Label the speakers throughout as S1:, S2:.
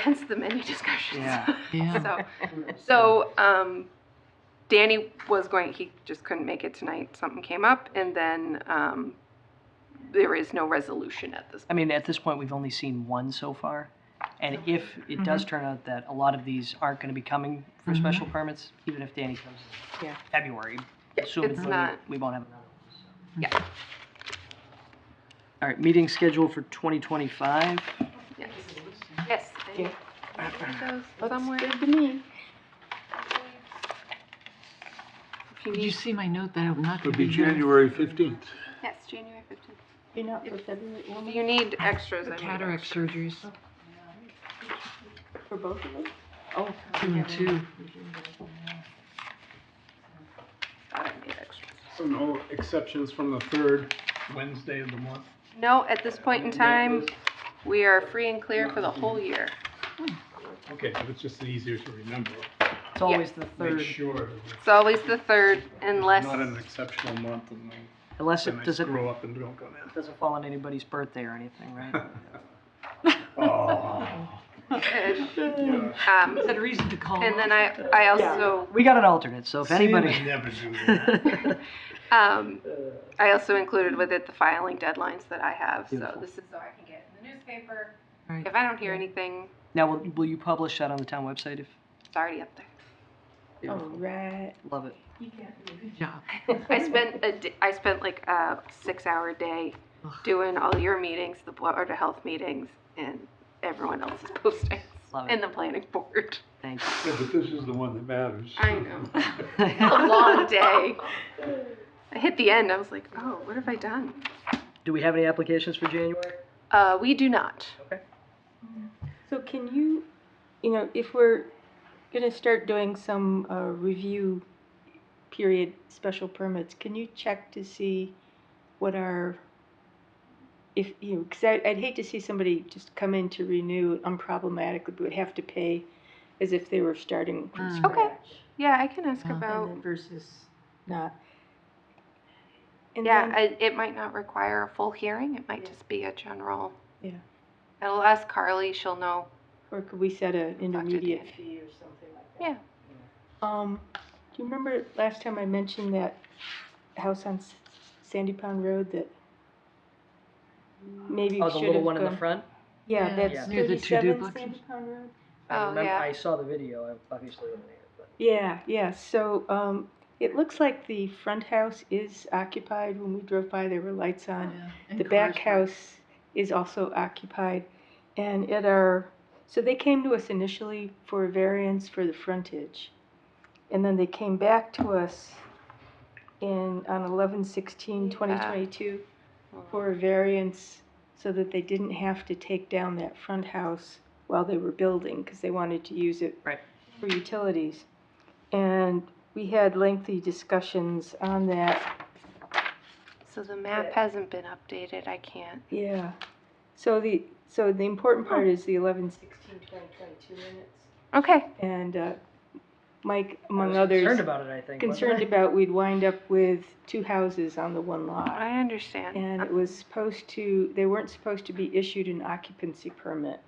S1: hence the menu discussions.
S2: Yeah.
S1: So, so, um, Danny was going, he just couldn't make it tonight, something came up, and then, um, there is no resolution at this.
S2: I mean, at this point, we've only seen one so far. And if it
S1: mm-hmm.
S2: does turn out that a lot of these aren't gonna be coming for
S3: Mhm.
S2: special permits, even if Danny comes in
S3: Yeah.
S2: February,
S1: it's
S2: assuming
S1: not- Mm-hmm.
S2: we won't have another one. so.
S1: Yeah.
S2: All right, meeting scheduled for twenty twenty-five.
S1: Yes, yes. I-
S3: Yeah.
S1: I think those Somewhere,
S3: to me.
S1: if you
S3: Did you
S1: need,
S3: see my note that I'm not
S4: It'll
S3: gonna
S4: be
S3: be here?
S4: January fifteenth.
S1: yes, January fifteenth.
S5: You're not for February, well,
S1: If you need extras, I
S3: The
S1: need
S3: cataract
S1: extras.
S3: surgeries,
S5: for both of us?
S3: Oh, two and two.
S1: I don't need extras.
S6: So no exceptions from the third Wednesday of the month?
S1: No, at this point in time, we are free and clear for the whole year.
S6: Okay, so it's just easier to remember.
S2: It's always the
S6: Make
S2: third,
S6: sure that it's
S1: It's always the third unless,
S6: not an exceptional month and then-
S2: unless
S6: then
S2: it,
S6: I
S2: does it,
S6: screw up and don't come in.
S2: doesn't fall on anybody's birthday or anything, right?
S6: Oh.
S1: um,
S3: Is that a reason to call
S1: and then
S3: off?
S1: I, I also,
S2: We got an alternate, so if
S6: See, I
S2: anybody.
S6: never do that.
S1: um, I also included with it the filing deadlines that I have, so
S2: Beautiful.
S1: this is so I can get in the newspaper.
S3: Right.
S1: If I don't hear anything,
S2: Now, will, will you publish that on the town website if,
S1: it's already up there.
S5: All
S1: Oh.
S5: right.
S2: love it?
S3: Good job.
S1: I spent a d- I spent like a six hour day
S3: Ugh.
S1: doing all your meetings, the board of health meetings, and everyone else's postings,
S2: Love it.
S1: and the planning board.
S2: Thank
S4: Yeah, but this is the one that matters.
S1: I know.
S2: you.
S1: a long day. I hit the end. I was like, oh, what have I done?
S2: Do we have any applications for January?
S1: Uh, we do not.
S5: So can you, you know, if we're gonna start doing some, uh, review period special permits, can you check to see what our, if, you know, cause I, I'd hate to see somebody just come in to renew unproblematically, but have to pay as if they were starting from
S3: Mm.
S5: scratch.
S1: Okay. Yeah, I can ask
S3: Uh,
S1: about.
S5: And then versus not. And
S1: Yeah,
S5: then-
S1: I, it might not require a full hearing. It might just be a general.
S5: Yeah.
S1: I'll ask Carly. She'll know.
S5: Or could we set an intermediate
S1: Danny.
S5: fee or something like
S1: Yeah.
S5: that? Yeah. Um, do you remember last time I mentioned that house on S- Sandy Pond Road that maybe should
S2: Oh,
S5: have
S2: the little one in the
S5: gone-
S2: front?
S3: Yeah.
S5: Yeah,
S2: Yeah.
S5: that's
S3: Near the to-do
S5: thirty-seven
S3: boxes.
S5: Sandy Pond Road?
S1: Oh,
S2: I remember,
S1: yeah.
S2: I saw the video, I obviously wasn't there, but.
S5: Yeah, yeah, so, um, it looks like the front house is occupied. When we drove by, there were lights on. The back house is also occupied, and at our, so they came to us initially for a variance for the frontage. And then they came back to us in, on eleven sixteen twenty twenty-two for a variance so that they didn't have to take down that front house while they were building, because they wanted to use it
S2: Right.
S5: for utilities. And we had lengthy discussions on that,
S1: So the map hasn't been updated. I can't.
S5: Yeah, so the, so the important part is the eleven sixteen twenty twenty-two minutes.
S1: Okay.
S5: And, uh, Mike,
S2: I was
S5: among
S2: Concerned
S5: others,
S2: about it, I think. wasn't
S5: concerned
S2: I?
S5: about we'd wind up with two houses on the one lot.
S1: I understand.
S5: And
S1: Uh,
S5: it was supposed to, they weren't supposed to be issued an occupancy permit.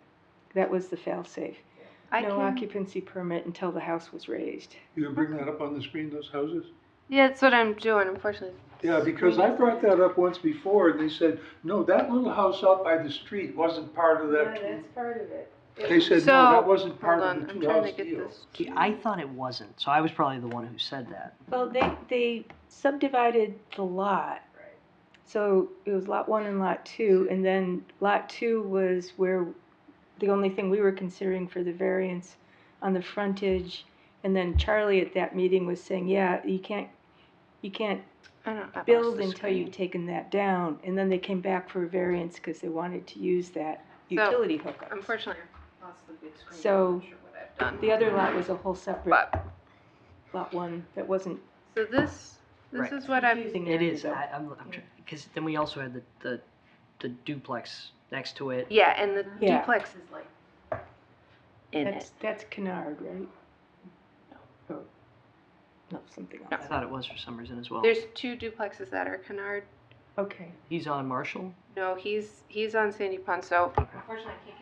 S5: That was the fail-safe.
S1: I
S5: No
S1: can,
S5: occupancy permit until the house was raised.
S4: You gonna bring that up on the screen, those houses?
S1: yeah, that's what I'm doing. Unfortunately,
S4: Yeah, because I brought that up once before and they said, no, that little house out by the street wasn't part of that.
S5: part of it.
S4: They said,
S1: So-
S4: no, that wasn't part
S1: hold on.
S4: of the
S1: I'm
S4: two
S1: trying to
S4: house
S1: get
S4: deal.
S1: this.
S2: See, I thought it wasn't, so I was probably the one who said that.
S5: Well, they, they subdivided the lot. So it was lot one and lot two, and then lot two was where the only thing we were considering for the variance on the frontage. And then Charlie at that meeting was saying, yeah, you can't, you can't
S1: I don't have
S5: build
S1: the
S5: until you've
S1: screen.
S5: taken that down. And then they came back for a variance because they wanted to use that
S1: So,
S5: utility hookup.
S1: Unfortunately, I lost the big screen.
S5: So-
S1: I'm not sure what I've done.
S5: The other lot was a whole separate,
S1: But-
S5: lot one that wasn't
S1: so this this
S2: Right.
S1: is what I've
S5: using
S2: It is,
S5: though.
S2: I, I'm, I'm trying, because then we also had the, the, the duplex next to it.
S1: Yeah, and the
S5: Yeah.
S1: duplex is like in
S5: That's, that's Kennard, right? No. No, something
S1: No.
S2: I
S5: else.
S2: thought it was for some reason as well.
S1: it. There's two duplexes that are Kennard.
S5: Okay.
S2: He's on Marshall?
S1: No, he's he's on Sandy Pond, so unfortunately I can't